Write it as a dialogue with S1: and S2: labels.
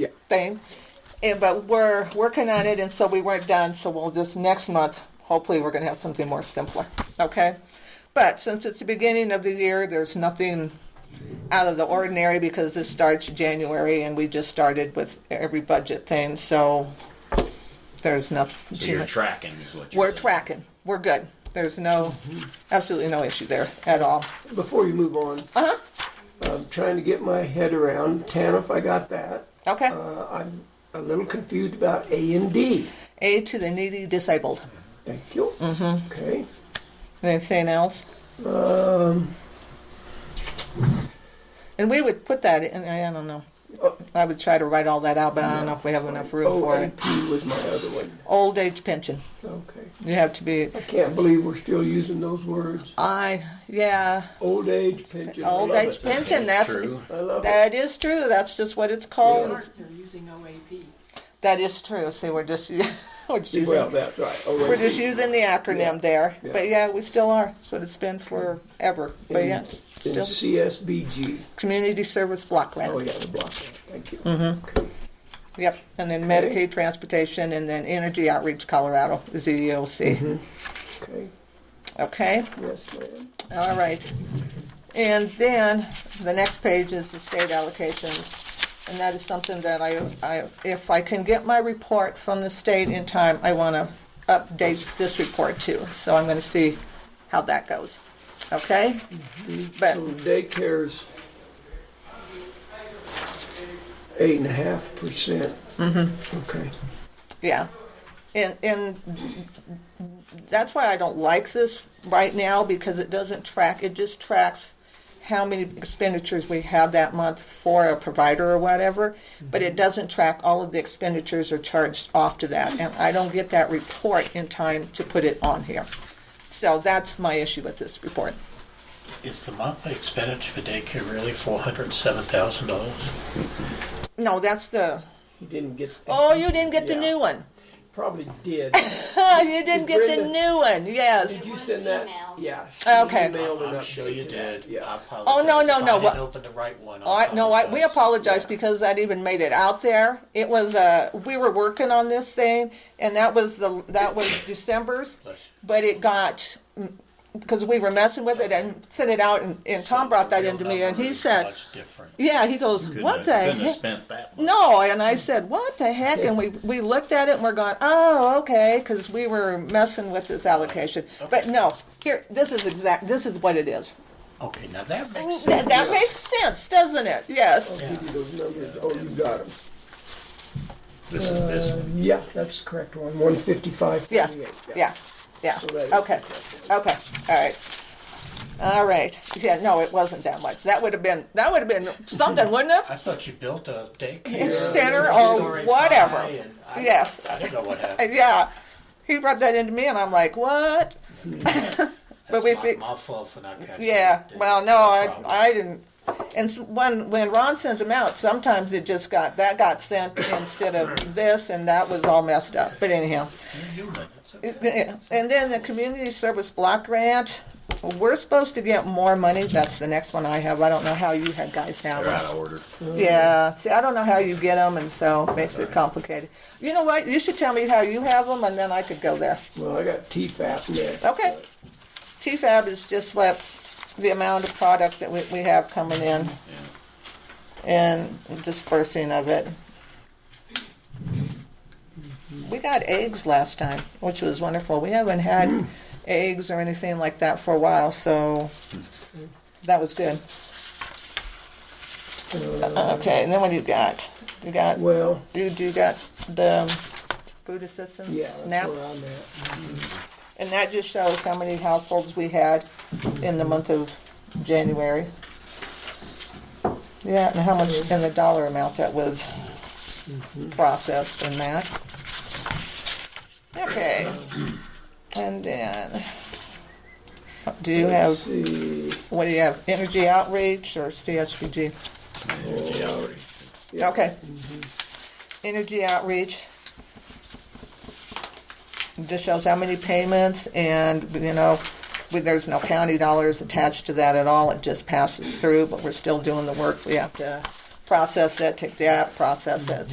S1: budget thing. And, but we're working on it, and so we weren't done, so we'll just, next month, hopefully, we're gonna have something more simpler, okay? But since it's the beginning of the year, there's nothing out of the ordinary because this starts January and we just started with every budget thing, so there's nothing.
S2: So you're tracking is what you're
S1: We're
S2: saying.
S1: tracking, we're good. There's no,
S2: Mm-hmm.
S1: absolutely no issue there at all.
S3: Before you move on,
S1: Uh-huh,
S3: I'm trying to get my head around TANF, I got that.
S1: okay.
S3: Uh, I'm a little confused about A and D.
S1: Aid to the needy disabled.
S3: Thank you. Mm-hmm. Okay.
S1: Anything else?
S3: Um,
S1: And we would put that in, I don't know.
S3: Oh.
S1: I would try to write all that out, but I don't know if we have enough room for it.
S3: OAP was my other one.
S1: Old age pension,
S3: Okay.
S1: you have to be,
S3: I can't believe we're still using those words.
S1: I, yeah,
S3: Old age pension. I
S1: Old
S3: love
S1: age
S3: it.
S1: pension, that's-
S2: True.
S3: I love it.
S1: that is true, that's just what it's called.
S3: Yeah.
S4: They're using OAP.
S1: That is true. See, we're just we're just
S3: Well,
S1: using
S3: that's right.
S1: we're just using the acronym
S3: Yeah.
S1: there.
S3: Yeah. Mm.
S1: But yeah, we still are. That's what it's been forever. But yeah,
S3: In
S1: still
S3: CSBG.
S1: community service block grant.
S3: Oh, yeah, the block. Thank you. Mm-hmm.
S1: Yep. And then
S3: Okay.
S1: Medicaid transportation, and then Energy Outreach Colorado is the EOC.
S3: Okay.
S1: Okay.
S3: Yes, ma'am.
S1: All right. And then the next page is the state allocations. And that is something that I, I, if I can get my report from the state in time, I want to update this report too. So I'm going to see how that goes. Okay? But,
S3: So daycare's eight and a half percent. Mm-hmm. Okay.
S1: yeah. And, and that's why I don't like this right now because it doesn't track, it just tracks how many expenditures we have that month for a provider or whatever, but it doesn't track all of the expenditures are charged off to that. And I don't get that report in time to put it on here. So that's my issue with this report.
S5: Is the monthly expenditure for daycare really four hundred and seven thousand dollars?
S1: No, that's the,
S3: He didn't get.
S1: oh, you didn't get the
S3: Yeah.
S1: new one.
S3: Probably did.
S1: You didn't get the
S3: Brenda-
S1: new one, yes.
S3: Did you
S6: was
S3: send that?
S6: emailed.
S3: Yeah. she
S1: Oh, Okay.
S3: emailed it
S5: I'm
S3: up.
S5: sure you did. Uh, I
S3: Yeah.
S5: apologize.
S1: Oh, no, no,
S5: If
S1: no,
S5: I
S1: what-
S5: didn't open the right one. I
S1: Oh, I, no, I, we apologize
S3: Yeah.
S1: because that even made it out there. It was, uh, we were working on this thing and that was the, that was December's.
S5: Bless
S1: but it got because we were messing with it and sent it out, and, and
S5: you.
S1: Tom brought that
S5: Real
S1: into me, and
S5: number
S1: he
S5: is
S1: said,
S5: Much different.
S1: "Yeah." He goes,
S2: Couldn't
S1: "What
S2: have-
S1: the
S2: Couldn't have
S1: heck?"
S2: spent that much.
S1: No, and I said, "What the heck?" And we we looked at it and we're going, "Oh, okay," because we were messing with this allocation. But no, here, this is exact. This is what it is.
S5: Okay, now that makes sense.
S1: That, that makes sense, doesn't it? Yes.
S3: I'll give you those numbers. Oh, you got them.
S2: This is this one.
S3: Yeah, that's the correct one. One fifty-five.
S1: Yeah. Yeah. Yeah.
S3: that is
S1: Okay. Okay. All right. All right. Yeah. No, it wasn't that much. That would have been. That would have been something, wouldn't it?
S5: I thought you built a daycare.
S1: It's
S5: and
S1: center
S5: a
S1: or
S5: storage
S1: whatever.
S5: high and I-
S1: Yes.
S5: I don't know what happened.
S1: Yeah. He brought that into me, and I'm like, what? but
S5: That's
S1: we
S5: my-
S1: fi-
S5: My fault for not catching it.
S1: Yeah. Well, no, I,
S5: problem.
S1: I didn't. And s- when when Ron sends them out, sometimes it just got that got sent instead of this, and that was all messed up. But anyhow.
S5: You're human. It's okay.
S1: And then the community service block grant, we're supposed to get more money. That's the next one I have. I don't know how you had guys have
S2: They're
S1: them.
S2: out of order.
S1: Yeah, see, I don't know how you get them, and so it makes it complicated. You know what? You should tell me how you have them, and then I could go there.
S3: Well, I got T-FAP next.
S1: Okay. TFAB is just what the amount of product that we, we have coming in and dispersing of it. We got eggs last time, which was wonderful. We haven't had eggs or anything like that for a while, so that was good. Okay, and then what do you got? You got,
S3: Uh, Well,
S1: you do got the food assistance,
S3: yeah, that's
S1: SNAP?
S3: where I'm at.
S1: And that just shows how many households we had in the month of January. Yeah, and how much, and the dollar amount that was processed in that. Okay. And then, do you
S3: Let's
S1: have,
S3: see.
S1: what do you have, energy outreach or CSBG?
S2: Energy outreach.
S1: Okay. Mm-hmm. Energy outreach. Just shows how many payments and, you know, we- there's no county dollars attached to that at all. It just passes through, but we're still doing the work. We have to process it, take the app, process it,